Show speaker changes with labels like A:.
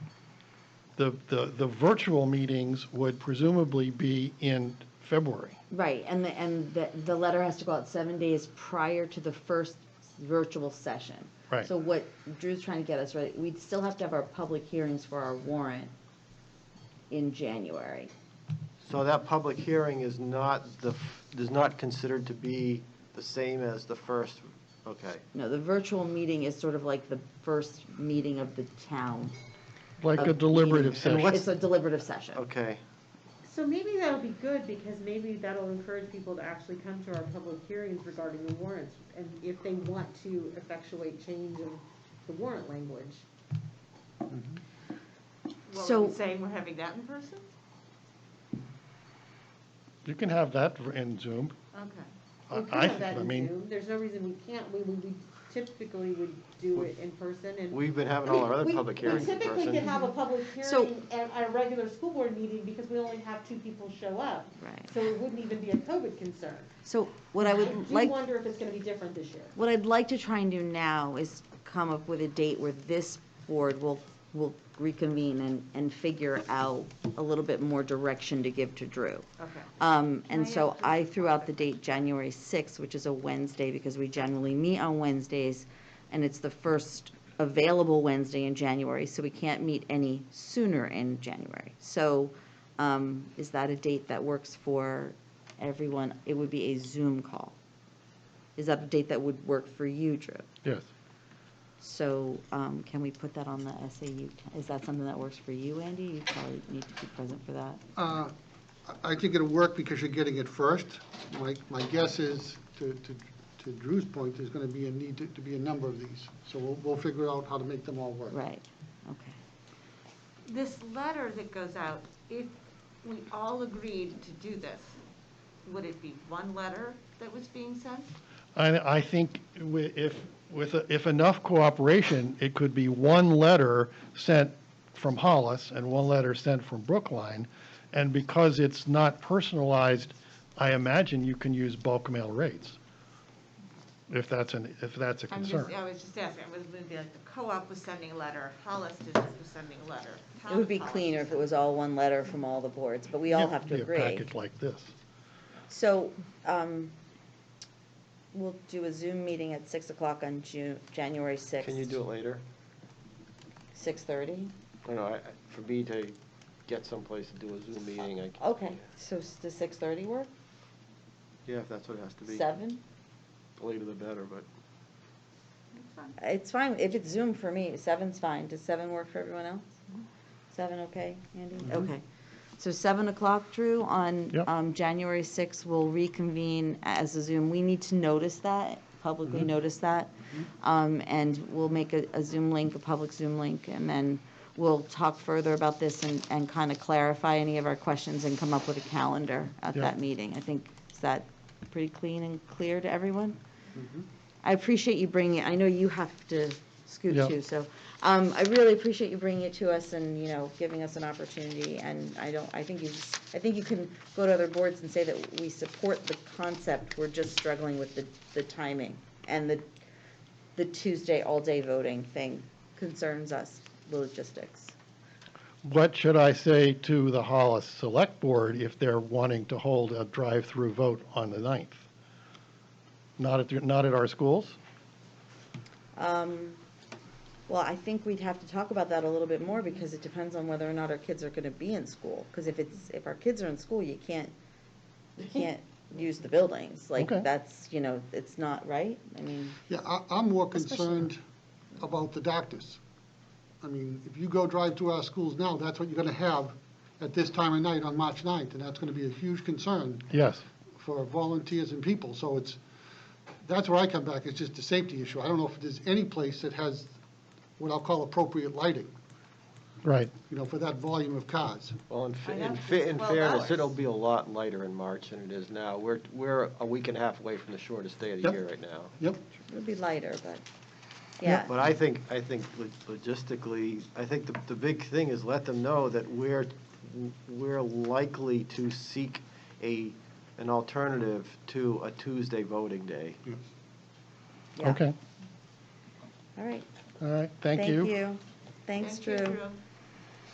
A: the, the, the virtual meetings would presumably be in February.
B: Right, and the, and the, the letter has to go out seven days prior to the first virtual session.
A: Right.
B: So what Drew's trying to get us, right, we'd still have to have our public hearings for our warrant in January.
C: So that public hearing is not the, f- is not considered to be the same as the first, okay.
B: No, the virtual meeting is sort of like the first meeting of the town.
A: Like
C: Uh,
A: a
B: of
A: deliberative
B: meeting.
A: session.
B: It's a deliberative session.
C: Okay,
D: So maybe that'll be good, because maybe that'll encourage people to actually come to our public hearings regarding the warrants, and if they want to effectuate change in the warrant language.
E: What
B: So-
E: were you saying, we're having that in person?
A: You can have that in Zoom.
E: Okay.
A: I-
D: We could
A: I
D: have that
A: think- I
D: in
A: mean-
D: Zoom. There's no reason we can't, we, we we typically would do it in person, and.
C: we've been having
D: I mean,
C: all our other
D: we-
C: public hearings in
D: We typically could
C: person.
D: have a public
B: So-
D: hearing at at a regular school board meeting, because we only have two people show up,
B: Right.
D: so it wouldn't even be a COVID concern.
B: So what I would
D: do
B: like.
D: wonder if it's gonna be different this year.
B: What I'd like to try and do now is come up with a date where this board will, will reconvene and, and figure out a little bit more direction to give to Drew.
D: Okay.
B: Um, and
E: Can I
B: so
E: ask
B: I threw out the date January sixth, which is a Wednesday, because we generally meet on Wednesdays, and it's the first available Wednesday in January, so we can't meet any sooner in January. So, um, is that a date that works for everyone? It would be a Zoom call. Is that a date that would work for you, Drew?
A: Yes.
B: So, um, can we put that on the SAU? ca- Is that something that works for you, Andy? You probably need to be present for that.
F: Uh, I I think it'll work because you're getting it first. My, my guess is, to, to to Drew's point, there's going to be a need to, to be a number of these. So we'll, we'll figure out how to make them all work.
B: Right, okay.
E: This letter that goes out, if we all agreed to do this, would it be one letter that was being sent?
A: I, I think wi- if, with, if enough cooperation, it could be one letter sent from Hollis and one letter sent from Brookline. And because it's not personalized, I imagine you can use bulk mail rates. If that's an, if that's a
E: I'm just,
A: concern.
E: I was just asking, it was gonna be like the co-op was sending a letter, Hollis District was sending a letter.
B: It would be
E: Town of Hollis
B: cleaner
E: was
B: if it was all one letter from all the boards, but we all have to
A: Be a
B: agree.
A: package like this.
B: So, um, we'll do a Zoom meeting at six o'clock on Ju- January sixth.
C: Can you do it later?
B: Six thirty?
C: I know, I, I- for me to get someplace to do a Zoom meeting, I, c-
B: Okay, so s- does six thirty work?
C: yeah, if that's what it has to be.
B: Seven?
C: The Later the better, but
E: That's fine.
B: Uh, It's fine, if it's Zoom for me, seven's fine. Does seven work for everyone else? Seven, okay, Andy? Okay. So seven o'clock, Drew, on,
A: Yep.
B: um, January sixth, we'll reconvene as a Zoom. We need to notice that, publicly notice that. Um, and we'll make a, a Zoom link, a public Zoom link, and then we'll talk further about this and, and kind of clarify any of our questions and come up with a calendar at
A: Yeah.
B: that meeting. I think, is that pretty clean and clear to everyone? I appreciate you bringing it, I know you have to scoot
A: Yeah.
B: too, so, um, I really appreciate you bringing it to us and, you know, giving us an opportunity, and I don't, I think you, I think you can go to other boards and say that we support the concept, we're just struggling with the, the timing, and the, the Tuesday all-day voting thing concerns us, the logistics.
A: What should I say to the Hollis Select Board if they're wanting to hold a drive-through vote on the 9th? Not at, your- not at our schools?
B: Um, Well, I think we'd have to talk about that a little bit more, because it depends on whether or not our kids are gonna be in school. Because if it's, if our kids are in school, you can't, you can't use the buildings. Like,
A: Okay.
B: that's, you know, it's not right, I mean,
F: Yeah, I, I'm more
B: Especially-
F: concerned about the doctors. I mean, if you go drive through our schools now, that's what you're going to have at this time of night on March 9th, and that's going to be a huge concern
A: Yes.
F: for volunteers and people. So it's, that's where I come back, it's just a safety issue. I don't know if there's any place that has what I'll call appropriate lighting,
A: Right.
F: you know, for that volume of cars.
C: Well, in, fa-
E: I
C: in
E: know,
C: fa-
E: it's
C: in
E: 12
C: fairness,
E: hours.
C: it'll be a lot lighter in March than it is now. We're, we're a week and a half away from the shortest day of the
F: Yep.
C: year right now.
F: Yep,
B: it'll be lighter, but, yeah.
C: But I think, I think lo- logistically, I think the, the big thing is let them know that we're, we're likely to seek a, an alternative to a Tuesday voting day.
B: yeah.
A: Okay.
B: All right,
A: All right. Thank
B: thank
A: you.
B: you. Thanks,
E: Thank you,
B: Drew.